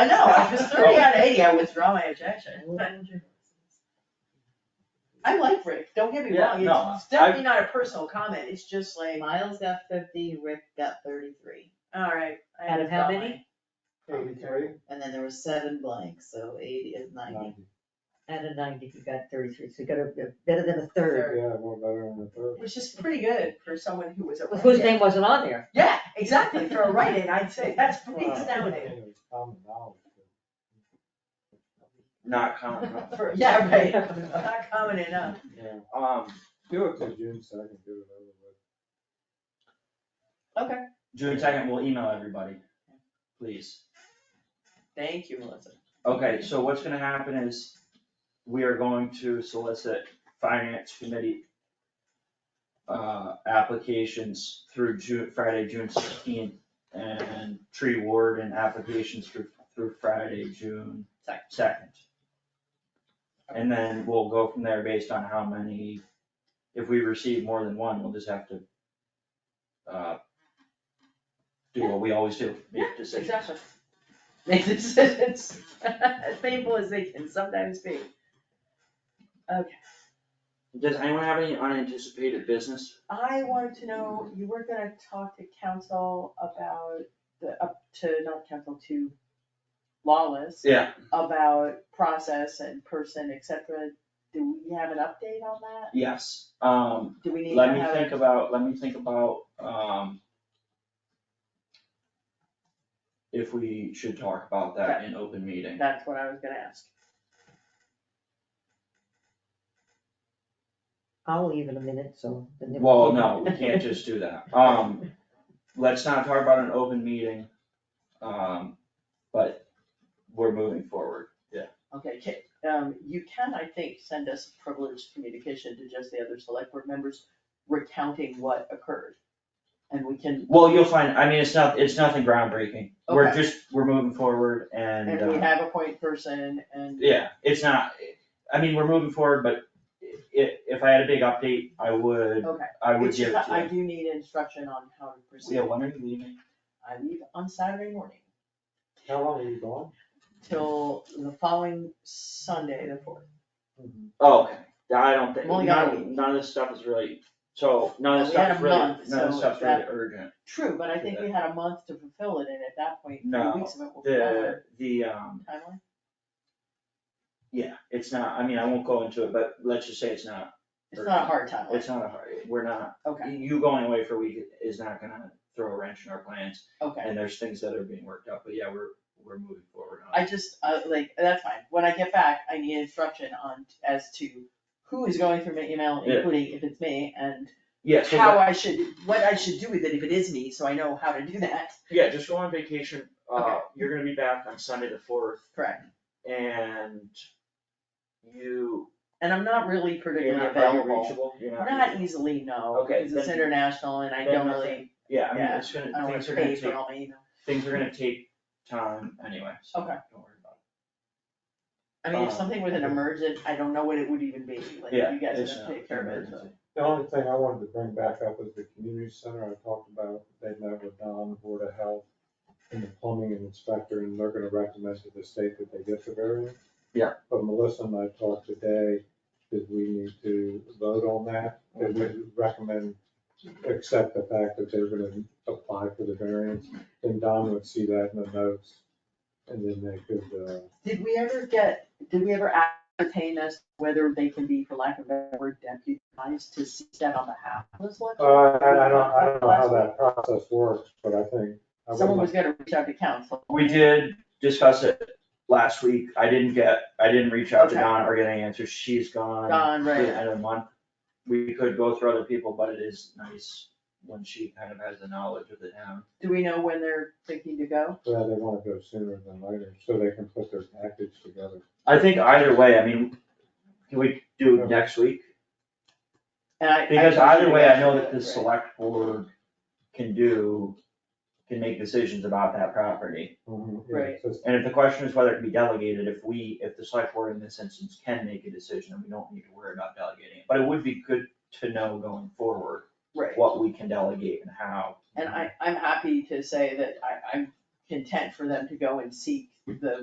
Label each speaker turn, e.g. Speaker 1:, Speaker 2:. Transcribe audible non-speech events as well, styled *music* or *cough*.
Speaker 1: I know, I was thirty out of eighty, I withdraw my
Speaker 2: Mm-hmm.
Speaker 1: objection. I like Rick, don't get me
Speaker 3: Yeah,
Speaker 1: wrong,
Speaker 3: no,
Speaker 1: it's definitely not a personal comment, it's just like,
Speaker 2: Miles got fifty, Rick got thirty-three,
Speaker 1: alright. I
Speaker 2: Out of how
Speaker 1: withdraw
Speaker 2: many?
Speaker 4: Eighty-three?
Speaker 2: and then there were seven blanks, so eighty is ninety.
Speaker 5: Out of ninety, you got thirty-three, so you got a, better than a third.
Speaker 4: Yeah, we're better than the
Speaker 1: my-
Speaker 4: third.
Speaker 1: Which is pretty good for someone who was a
Speaker 5: Whose
Speaker 1: write-in.
Speaker 5: name wasn't on there?
Speaker 1: Yeah, exactly, for a write-in, I'd say that's pretty
Speaker 4: Well,
Speaker 1: astounding.
Speaker 4: it was common knowledge,
Speaker 3: Not common, no.
Speaker 1: For, yeah,
Speaker 5: *laughs*
Speaker 1: right, not common enough.
Speaker 4: but, Yeah,
Speaker 3: Um,
Speaker 4: do it to June second, do it over with.
Speaker 1: Okay.
Speaker 3: June second, we'll email everybody, please.
Speaker 1: Thank you, Melissa.
Speaker 3: Okay, so what's gonna happen is we are going to solicit finance committee uh, applications through Ju- Friday, June sixteenth, and tree warden applications through, through Friday, June
Speaker 1: Second.
Speaker 3: second. And then we'll go from there based on how many, if we receive more than one, we'll just have to uh, do what we always do, make decisions.
Speaker 1: Exactly. Make decisions, *laughs* as painful as they can sometimes be. Okay,
Speaker 3: Does anyone have any unanticipated business?
Speaker 1: I wanted to know, you were gonna talk to council about the, up to, not council, to Lawless.
Speaker 3: Yeah.
Speaker 1: About process and person, et cetera. Do we have an update on that?
Speaker 3: Yes, um,
Speaker 1: Do we need to
Speaker 3: let
Speaker 1: have?
Speaker 3: me think about, let me think about, um, if we should talk about that in open meeting.
Speaker 1: That's what I was gonna ask.
Speaker 5: I'll leave in a minute, so. then they-
Speaker 3: Well, no, we can't just do that. Um, let's not talk about an open meeting, um, but we're moving forward. Yeah.
Speaker 1: Okay, ca- um, you can, I think, send us a privileged communication to just the other select board members recounting what occurred. And we can,
Speaker 3: Well, you'll find, I mean, it's not, it's nothing groundbreaking. We're
Speaker 1: Okay.
Speaker 3: just, we're moving forward and,
Speaker 1: and we
Speaker 3: uh,
Speaker 1: have a point person and,
Speaker 3: Yeah, it's not, I mean, we're moving forward, but i- if I had a big update, I would,
Speaker 1: okay.
Speaker 3: I would
Speaker 1: It's
Speaker 3: give it
Speaker 1: just I
Speaker 3: to
Speaker 1: do need instruction on how to
Speaker 3: you.
Speaker 1: proceed.
Speaker 3: Yeah, when are you leaving?
Speaker 1: I leave on Saturday morning
Speaker 4: How long are you gone?
Speaker 1: till the following Sunday, the fourth.
Speaker 4: Mm-hmm.
Speaker 3: Oh, okay. I don't think,
Speaker 1: I'm only gone a
Speaker 3: none, none of this stuff is really, so, none of this
Speaker 1: We had
Speaker 3: stuff is
Speaker 1: a
Speaker 3: really, none
Speaker 1: month,
Speaker 3: of this
Speaker 1: so
Speaker 3: stuff's really
Speaker 1: that-
Speaker 3: urgent.
Speaker 1: True, but I think we had a month to fulfill it and at that point,
Speaker 3: No,
Speaker 1: three weeks of it will be over.
Speaker 3: The, the, um,
Speaker 1: Timeline?
Speaker 3: yeah, it's not, I mean, I won't go into it, but let's just say it's not,
Speaker 1: It's not a hard timeline,
Speaker 3: it's not a hard, we're not,
Speaker 1: okay,
Speaker 3: you going away for a week is not gonna throw a wrench in our plans.
Speaker 1: okay.
Speaker 3: And there's things that are being worked out, but yeah, we're, we're moving forward on it.
Speaker 1: I just, uh, like, that's fine, when I get back, I need instruction on, as to who is going through my email,
Speaker 3: Yeah.
Speaker 1: including if it's me, and
Speaker 3: Yeah, so
Speaker 1: how I should, what I should do with it if it is me, so I know how to do that, *laughs*
Speaker 3: Yeah, just go on vacation, uh,
Speaker 1: Okay.
Speaker 3: you're gonna be back on Sunday the fourth,
Speaker 1: correct?
Speaker 3: and you,
Speaker 1: And I'm not really
Speaker 3: you're
Speaker 1: particularly
Speaker 3: not very
Speaker 1: available,
Speaker 3: reachable, you're not.
Speaker 1: not easily, no,
Speaker 3: Okay,
Speaker 1: because it's
Speaker 3: then-
Speaker 1: international and I
Speaker 3: then
Speaker 1: don't
Speaker 3: nothing.
Speaker 1: really,
Speaker 3: Yeah, I mean,
Speaker 1: yeah,
Speaker 3: it's gonna,
Speaker 1: I don't
Speaker 3: things
Speaker 1: wanna
Speaker 3: are gonna
Speaker 1: pay for
Speaker 3: take,
Speaker 1: all my email.
Speaker 3: things are gonna take time anyway, so don't
Speaker 1: Okay.
Speaker 3: worry about
Speaker 1: I mean, if
Speaker 3: Um,
Speaker 1: something was an emergent, I don't know what it would even be, like,
Speaker 3: it. Yeah,
Speaker 1: you guys
Speaker 3: it's
Speaker 1: have
Speaker 3: not
Speaker 1: to take care of it,
Speaker 3: emergency.
Speaker 4: The only thing I wanted to bring back up was the community center I talked about, they met with Don, Board of Health, and the plumbing inspector, and they're gonna recommend to the state that they get the variance.
Speaker 3: Yeah.
Speaker 4: But Melissa and I talked today, that we need to vote on that, and we recommend, accept the fact that they're gonna apply for the variance, and Don would see that in the notes, and then they could, uh,
Speaker 1: Did we ever get, did we ever ascertain as whether they can be, for lack of a better word, deputized to step on behalf of the select?
Speaker 4: Uh, I I don't, I don't know how that process works, but I think. I would
Speaker 1: Someone
Speaker 4: like-
Speaker 1: was gonna reach out to council.
Speaker 3: We did discuss it last week, I didn't get, I didn't reach out to
Speaker 1: Okay.
Speaker 3: Dawn or get any answers, she's gone
Speaker 1: Don,
Speaker 3: through the
Speaker 1: right,
Speaker 3: end of the month. We could go through other people, but it is nice when she kind of has the knowledge of the town.
Speaker 1: do we know when they're thinking to go?
Speaker 4: Yeah, they wanna go sooner than later, so they can put their package together.
Speaker 3: I think either way, I mean, can we do next week?
Speaker 1: And I. I-
Speaker 3: Because either way, I know that the select board can do, can make decisions about that property.
Speaker 4: Mhm, yeah,
Speaker 1: Right.
Speaker 4: so it's-
Speaker 3: And if the question is whether it can be delegated, if we, if the select board in this instance can make a decision, then we don't need to worry about delegating it. But it would be good to know going forward
Speaker 1: Right,
Speaker 3: what we can delegate and how.
Speaker 1: and I, I'm happy to say that I, I'm content for them to go and seek the